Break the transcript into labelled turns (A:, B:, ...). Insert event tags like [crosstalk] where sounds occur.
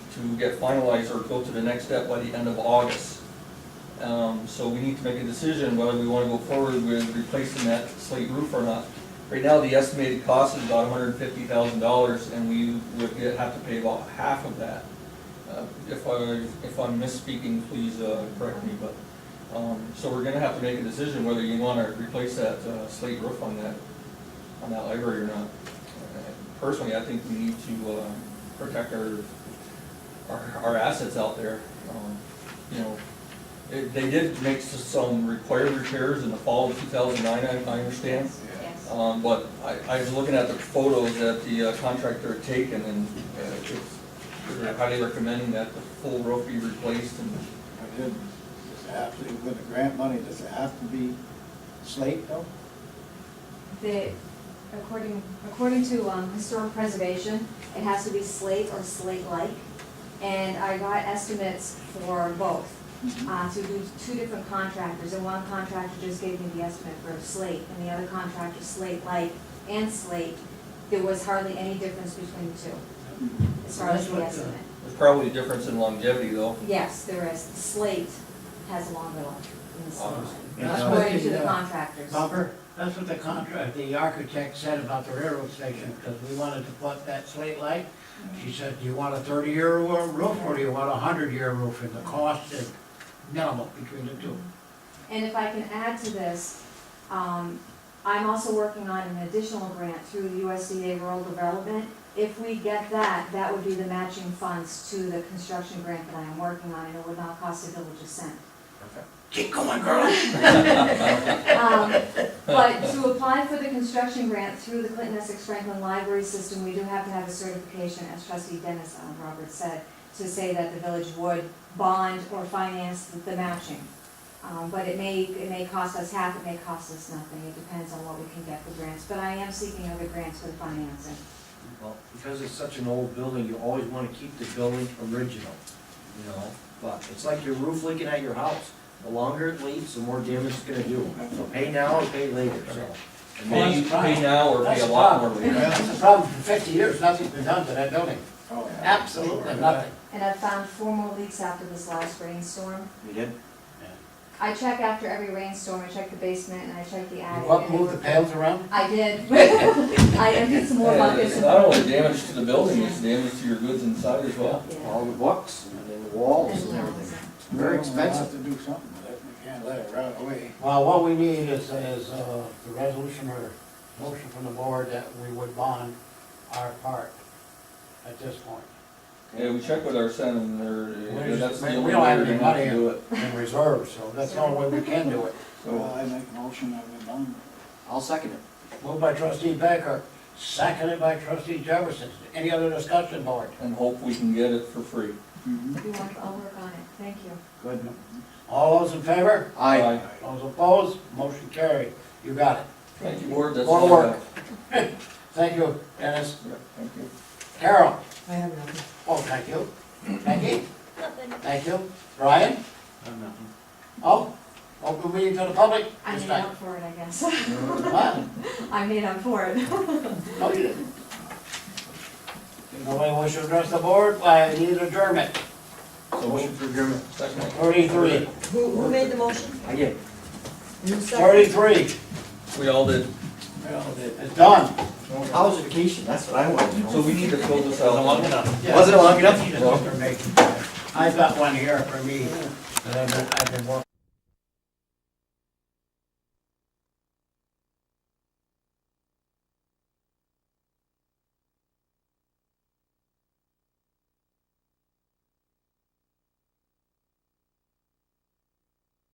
A: to get finalized or go to the next step by the end of August. Um, so we need to make a decision whether we wanna go forward with replacing that slate roof or not. Right now, the estimated cost is about hundred and fifty thousand dollars, and we would get- have to pay about half of that. Uh, If I, if I'm misspeaking, please, uh, correct me, but, um, so we're gonna have to make a decision whether you wanna replace that, uh, slate roof on that, on that library or not. Uh, Personally, I think we need to, uh, protect our, our, our assets out there, um, you know. It- They did make s- some required repairs in the fall of two thousand nine, I, I understand.
B: Yes.
A: Um, but I, I was looking at the photos that the uh, contractor had taken and uh, it's- they're highly recommending that the full roof be replaced and,
C: I did, does it have to, with the grant money, does it have to be slate though?
B: The, according, according to um, historic preservation, it has to be slate or slate-like. And I got estimates for both, uh, to do two different contractors. And one contractor just gave me the estimate for slate, and the other contractor slate-like and slate. There was hardly any difference between the two, as far as the estimate.
A: there's probably a difference in longevity though.
B: Yes, there is. Slate has a longer life than the slate.
D: That's what
B: According to the
D: the, uh,
B: contractors.
D: bumper, that's what the contract, the architect said about the railroad station, because we wanted to put that slate light. She said, do you want a thirty-year roof, or do you want a hundred-year roof, and the cost is minimal between the two.
B: And if I can add to this, um, I'm also working on an additional grant through the USDA Rural Development. If we get that, that would be the matching funds to the construction grant that I am working on, and it would not cost a village a cent.
D: Keep going, girl.
B: Um, But to apply for the construction grant through the Clinton Essex Franklin Library System, we do have to have a certification, as trustee Dennis um, Roberts said, to say that the village would bond or finance the matching. Um, But it may, it may cost us half, it may cost us nothing, it depends on what we can get for grants. But I am seeking other grants for the financing.
E: Well, because it's such an old building, you always wanna keep the building original, you know? But it's like your roof leaking at your house, the longer it leaks, the more damage it's gonna do. So pay now or pay later, so.
D: Well,
A: Pay,
D: that's fine.
A: pay now or pay
D: That's
A: a
D: the
A: lot more
D: problem, [laughs]
A: later.
D: that's the problem, for fifty years, nothing's been done to that building,
C: Oh, yeah.
D: absolutely nothing.
B: And I've found four more leaks after this last rainstorm.
E: You did?
B: I check after every rainstorm, I check the basement and I check the attic.
D: What,
B: and they
D: move the
B: were-
D: panels around?
B: I did. [laughs] I emptied some more
A: And
B: buckets.
A: It's
B: and-
A: not only damage to the building, it's damage to your goods inside as well.
B: Yeah. uh,
E: All the books, and then the walls and everything. Very
C: Well, we'll have
E: expensive.
C: to do something with it, we can't let it rot away.
D: Well, what we need is, is uh, the resolution or motion from the board that we would bond our part at this point.
A: Yeah, we checked with our son and they're,
D: There's-
A: that's the
D: we- we
A: only
D: don't
A: way
D: have
A: we're
D: any
A: gonna have to
D: money.
A: do it.
D: in reserve, so that's the only way we can do it.
C: Well,
A: So,
C: I make a motion that we bond it.
E: I'll second it.
D: Moved by trustee Becker, seconded by trustee Jefferson. Any other discussion, board?
A: and hope we can get it for free.
E: Mm-hmm.
C: Mhm.
B: You want, I'll work on it, thank you.
E: Good.
D: All those in favor?
E: Aye.
A: Aye.
D: Those opposed? Motion carried. You got it.
A: Thank you, Ward, that's
D: More
A: all I
D: work.
A: have.
D: Thank you, Dennis.
A: Yeah, Thank you.
D: Carol?
F: I have nothing.
D: Oh, thank you. Becky? Thank you. Brian? Oh, open meeting to the public?
B: I
D: This
B: made
D: time.
B: up for it, I guess. [laughs]
D: What?
B: I made up for it.
D: No, you didn't. If nobody wants to address the board, I need adjournment.
A: So
E: Motion
A: motion
E: for adjournment.
A: Second.
D: Thirty-three.
F: Who, who made the motion?
E: I did.
F: You seconded?
D: Thirty-three.
A: We all did.
C: Well,
D: It's done.
E: How was your vacation? That's what I wanted to know.
A: So we need to fill this out.
E: Was it long enough?
D: I've got one here for me, that I've been, I've been working